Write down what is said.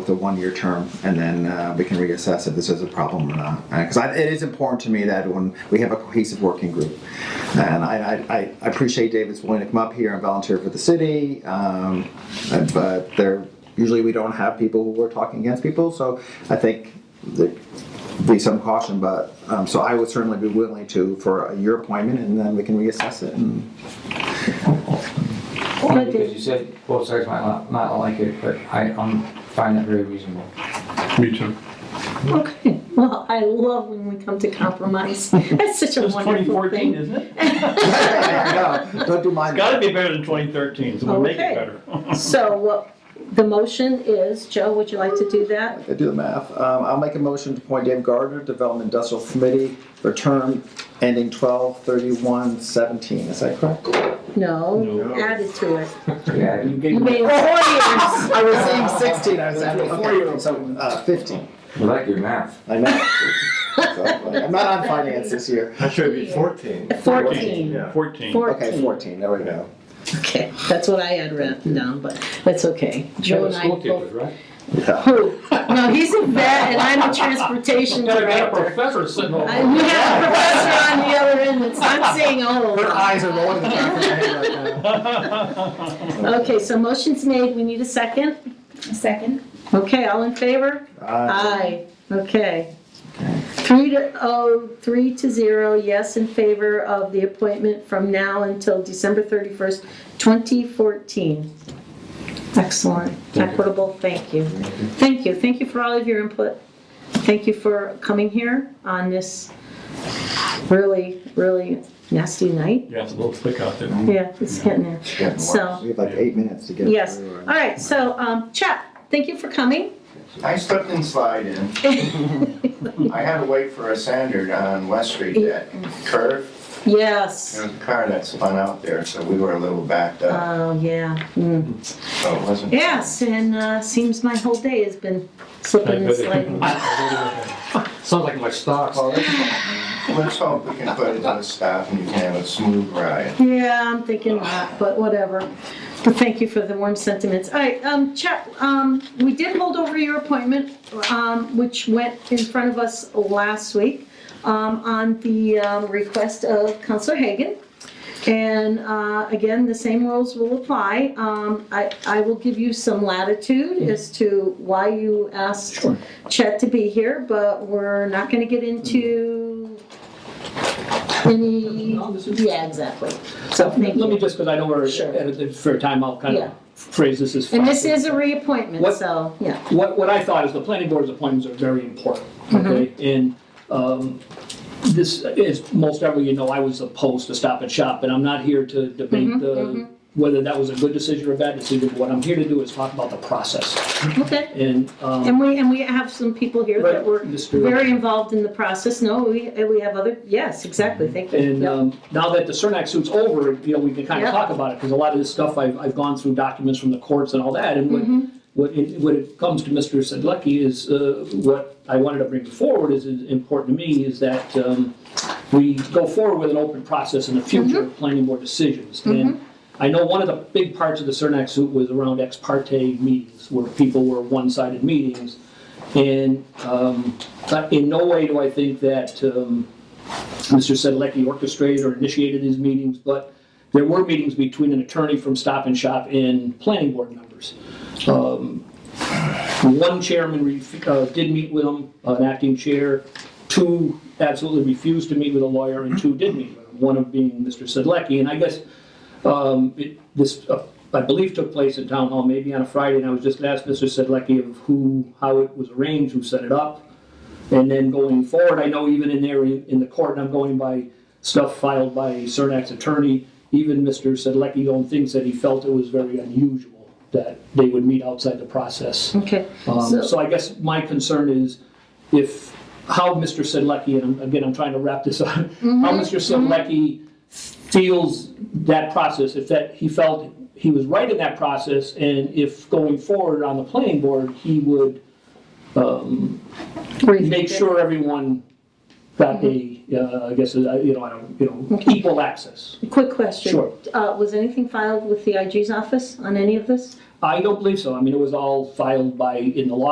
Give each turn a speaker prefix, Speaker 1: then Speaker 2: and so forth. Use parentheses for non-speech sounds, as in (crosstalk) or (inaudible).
Speaker 1: the one-year term, and then uh, we can reassess if this is a problem or not. Because it is important to me that when we have a cohesive working group, and I, I, I appreciate David's willing to come up here and volunteer for the city, um, uh, but there usually we don't have people who are talking against people. So I think that be some caution, but um, so I would certainly be willing to for a year appointment, and then we can reassess it. And, (laughs)
Speaker 2: Only because you said both sides might not, might not like it, but I, um, find that very reasonable.
Speaker 3: Me too.
Speaker 4: Okay, well, I love when we come to
Speaker 2: (laughs)
Speaker 4: compromise. That's such a
Speaker 5: It's
Speaker 4: wonderful
Speaker 5: 2014,
Speaker 4: thing.
Speaker 5: isn't it?
Speaker 1: no, don't do mine.
Speaker 5: It's gotta be better than 2013, so we'll make
Speaker 4: Okay.
Speaker 5: it better.
Speaker 4: So what the motion is, Joe, would you like to do that?
Speaker 1: I do the math. Um, I'll make a motion to appoint Dave Gardner, Development Industrial Committee, for term ending 12/31/17. Is that correct?
Speaker 4: No,
Speaker 5: No.
Speaker 4: added to it.
Speaker 2: Yeah, you
Speaker 4: You
Speaker 2: gave me,
Speaker 4: made four years.
Speaker 1: I was saying 16. I was adding okay, so uh, 15.
Speaker 2: you like your math.
Speaker 1: I know. So, like, I'm not on finance this year.
Speaker 6: That should be 14.
Speaker 4: Fourteen.
Speaker 5: 14.
Speaker 1: Okay,
Speaker 4: Fourteen.
Speaker 1: 14. There we go.
Speaker 4: Okay, that's what I had written down, but that's okay. Joe
Speaker 2: You're a
Speaker 4: and I
Speaker 2: school teacher,
Speaker 4: both.
Speaker 2: right?
Speaker 1: Yeah.
Speaker 4: Who? No, he's a vet and I'm a transportation
Speaker 5: Gotta get a
Speaker 4: director.
Speaker 5: professor sitting over.
Speaker 4: I- We have a professor on the other end that's not saying old.
Speaker 1: Her eyes are rolling (laughs) in the back of her head right now.
Speaker 4: Okay, so motion's made, we need a second.
Speaker 7: Second.
Speaker 4: Okay, all in favor?
Speaker 1: Uh,
Speaker 4: Aye, okay. Three to, oh, three to zero, yes in favor of the appointment from now until December 31st, 2014. Excellent,
Speaker 2: you.
Speaker 4: equitable, thank you. Thank you, thank you for all of your input. Thank you for coming here on this really, really nasty night.
Speaker 5: Yeah, it's a little thick out there.
Speaker 4: Yeah, it's getting there.
Speaker 1: it's getting worse.
Speaker 4: So-
Speaker 1: we have like eight minutes to get
Speaker 4: Yes,
Speaker 1: through.
Speaker 4: all right, so, um, Chuck, thank you for coming.
Speaker 6: I slipped and slide in. I had to wait for a Sandard on West Street, that curve. There
Speaker 4: Yes,
Speaker 6: was a car that spun out there, so we were a little backed up,
Speaker 4: oh, yeah. mm.
Speaker 6: so it wasn't.
Speaker 4: Yes, and uh, seems my whole day has been slipping
Speaker 5: (laughs)
Speaker 4: and sliding.
Speaker 2: Sounds like my stocks.
Speaker 4: (laughs)
Speaker 6: Well, let's- Let's hope we can put it to a stop and you can have a smooth ride.
Speaker 4: Yeah, I'm thinking that, but whatever. But thank you for the warm sentiments. All right, um, Chuck, um, we did hold over your appointment, um, which went in front of us last week, um, on the, um, request of Counselor Hagan. And, uh, again, the same rules will apply. Um, I, I will give you some latitude as to why you asked Chet to be here, but we're not gonna get into any,
Speaker 8: No, this is-
Speaker 4: yeah, exactly. So thank
Speaker 8: Let me
Speaker 4: you.
Speaker 8: just, because I know we're
Speaker 4: Sure.
Speaker 8: at a fair time, I'll kind
Speaker 4: Yeah.
Speaker 8: of phrase this as.
Speaker 4: And this is
Speaker 8: fast.
Speaker 4: a reappointment,
Speaker 8: What-
Speaker 4: so, yeah.
Speaker 8: What, what I thought is the planning board's appointments are very important,
Speaker 4: Mm-hmm.
Speaker 8: okay? And um, this, as most everyone you know, I was opposed to Stop and Shop, and I'm not here to
Speaker 4: Mm-hmm.
Speaker 8: debate the, whether that was a good decision or a bad decision. What I'm here to do is talk about the process
Speaker 4: Okay.
Speaker 8: and. um,
Speaker 4: And we, and we have some people here that
Speaker 8: Right,
Speaker 4: were
Speaker 8: Mr.
Speaker 4: very involved in the process. No, we, and we have other, yes, exactly, thank you.
Speaker 8: And
Speaker 4: Yep.
Speaker 8: um, now that the Cernak suit's over, you know, we can kind
Speaker 4: Yeah.
Speaker 8: of talk about it, because a lot of this stuff, I've, I've gone through documents from the courts and all that, and
Speaker 4: Mm-hmm.
Speaker 8: what, what it, what it comes to Mr. Sedlecki is, uh, what I wanted to bring forward is is important to me, is that um, we go forward with an open process in the future of planning board decisions. And I know one of the big parts of the Cernak suit was around ex parte meetings, where people were one-sided meetings. And um, in no way do I think that um, Mr. Sedlecki orchestrated or initiated these meetings, but there were meetings between an attorney from Stop and Shop and planning board members. Um, One chairman ref- uh, did meet with him, an acting chair, two absolutely refused to meet with a lawyer, and two did meet with him, one of being Mr. Sedlecki. And I guess um, it- this, uh, I believe, took place in town hall, maybe on a Friday, and I was just asked Mr. Sedlecki of who, how it was arranged, who set it up. And then going forward, I know even in there, in in the court, and I'm going by stuff filed by Cernak's attorney, even Mr. Sedlecki own things that he felt it was very unusual that they would meet outside the process.
Speaker 4: Okay,
Speaker 8: Um,
Speaker 4: so,
Speaker 8: So I guess my concern is if, how Mr. Sedlecki, and I'm- again, I'm trying to wrap this up, how Mr. Sedlecki feels that process, if that, he felt he was right in that process, and if going forward on the planning board, he would um, make sure everyone got a, uh, I guess, uh, you know, I don't, you know, equal access.
Speaker 4: quick question.
Speaker 8: Sure.
Speaker 4: Uh, was anything filed with the IG's office on any of this?
Speaker 8: I don't believe so. I mean, it was all filed by, in the law